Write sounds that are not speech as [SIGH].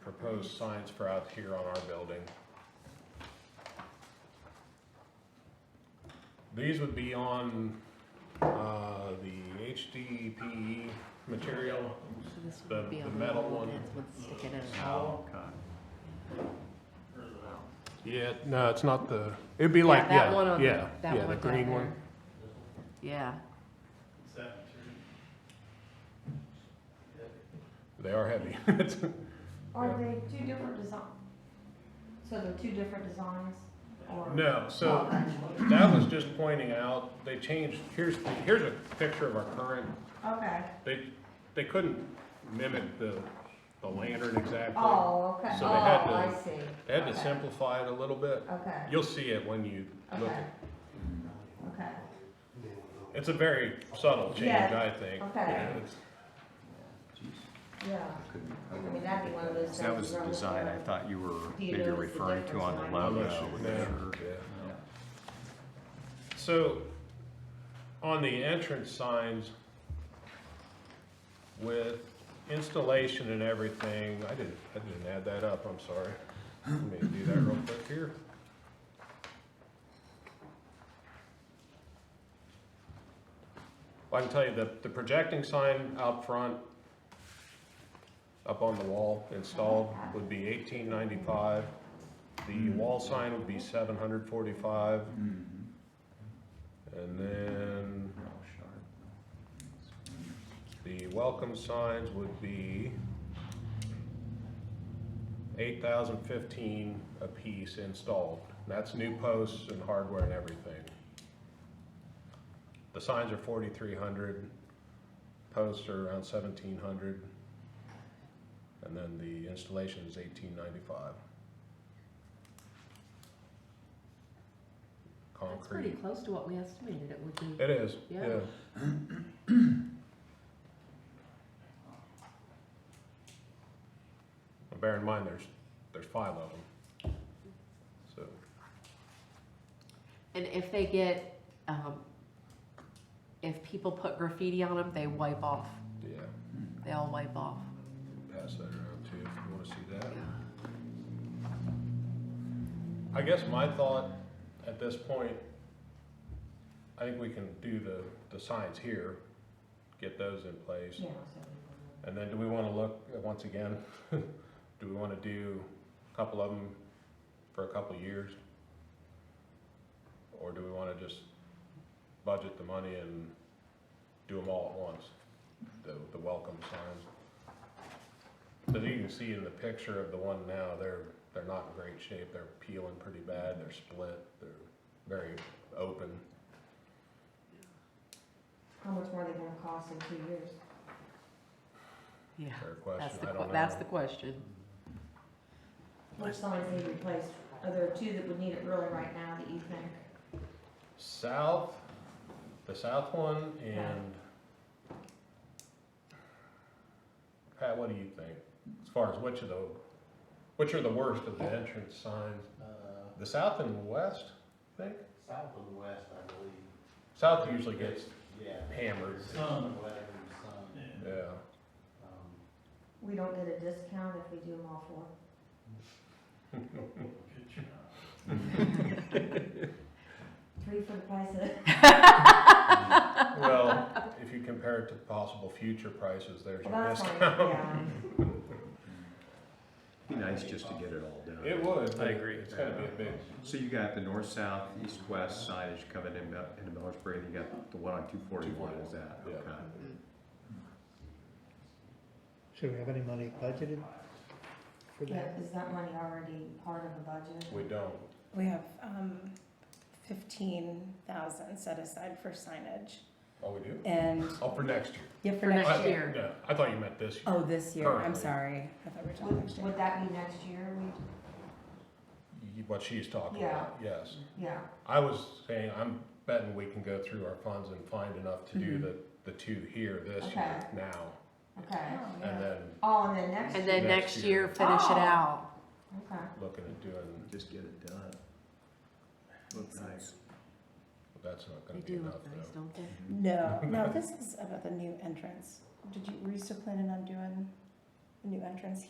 proposed signs for out here on our building. These would be on, uh, the HDPE E material. So this The- would be the on the metal wall, one. that's what's sticking out. Oh, Yeah, no, it's not the, it'd be like, that one yeah, on the- yeah, that yeah, one the down green there. one. Yeah, They are heavy. [LAUGHS] It's- Are Yeah. they two different design? So they're two different designs or? No, so that was just pointing out, they changed, here's, here's a picture of our current, Okay, they, they couldn't mimic the, the lantern exactly. oh, okay, So oh, they had to- I see. They had to Okay. simplify it a little bit. Okay, You'll see it when you look okay, at, okay, it's a very subtle change, Yeah, I think. okay. Yeah, it's- yeah. I mean, that'd be one of those things. That was you the run with design I your- thought you were Do you maybe notice the referring to on difference the in- logo. Unless you- with yeah, the- yeah. Yeah. So, on the entrance signs, with installation and everything, I didn't, I didn't add that up, I'm sorry. Let me do that real quick here. Well, I can tell you that the projecting sign out front, up on the wall installed, would be eighteen ninety-five. The wall sign would be seven hundred forty-five. Mhm. And then Real sharp. the welcome signs would be eight thousand fifteen apiece installed. That's new posts and hardware and everything. The signs are forty-three hundred, posts are around seventeen hundred. And then the installation is eighteen ninety-five. that's pretty Concrete. Eh. close to what we estimated it would be. It is, Yeah. yeah. But Bear in mind, there's, there's five of them. So, And if they get, um, if people put graffiti on them, they wipe off, yeah, they all wipe off. pass that around too, if you wanna see that. Yeah. I guess my thought at this point, I think we can do the, the signs here, get those in place. Yeah, so- And then do we wanna look, uh, once again, [LAUGHS] do we wanna do a couple of them for a couple of years? Or do we wanna just budget the money and do them all at once, the, the welcome signs? But you can see in the picture of the one now, they're, they're not in great shape, they're peeling pretty bad, they're split, they're very open. How much more are they gonna cost in two years? Yeah, Fair that's question, the, I don't que- know. that's the question. Which signs need replaced? Are there two that would need it really right now that you think? South, the south one and Pat, what do you think? As far as which of the, which are the worst of the entrance signs? Uh, The south and west, I think? South and west, I believe, South usually gets yeah. hammered, Some weather, some. yeah. um, We don't get a discount if we do them all four. Three for the price of, Well, if you compare it to possible future prices, there's well, your that's fine, discount. [LAUGHS] yeah. Be nice just to get it all done. [LAUGHS] It would. I agree. It's gotta be a big, So you got the north, south, east, west signage coming in, Bel- into Millersburg, you got the one on two forty-one, is that, Yeah. okay? Should we have any money budgeted for that? Yeah, Is that money already part of the budget? we don't. We have um, 15,000 set aside for signage. Oh, we do? And, Oh, for next year. yeah, for For next next I- year. Yeah, I thought you meant this year. Oh, this year, I'm Currently. sorry. I thought we were talking next Would, year. would that be next year? You- What she's talking Yeah. about, yes. We, yeah, I was saying, I'm betting we can go through our funds and find enough to do Mm-hmm. Mhm. the, the two here this year Okay. now. okay. And Oh, yeah. then Oh, and then next And year, then Next next year. year, finish it Oh. out. okay. looking at doing, Just get it done. Look Makes nice. that's not They gonna be do enough look nice, though. don't they? [LAUGHS] No, no, this is about the new entrance. Did you, were you still planning on doing the new entrance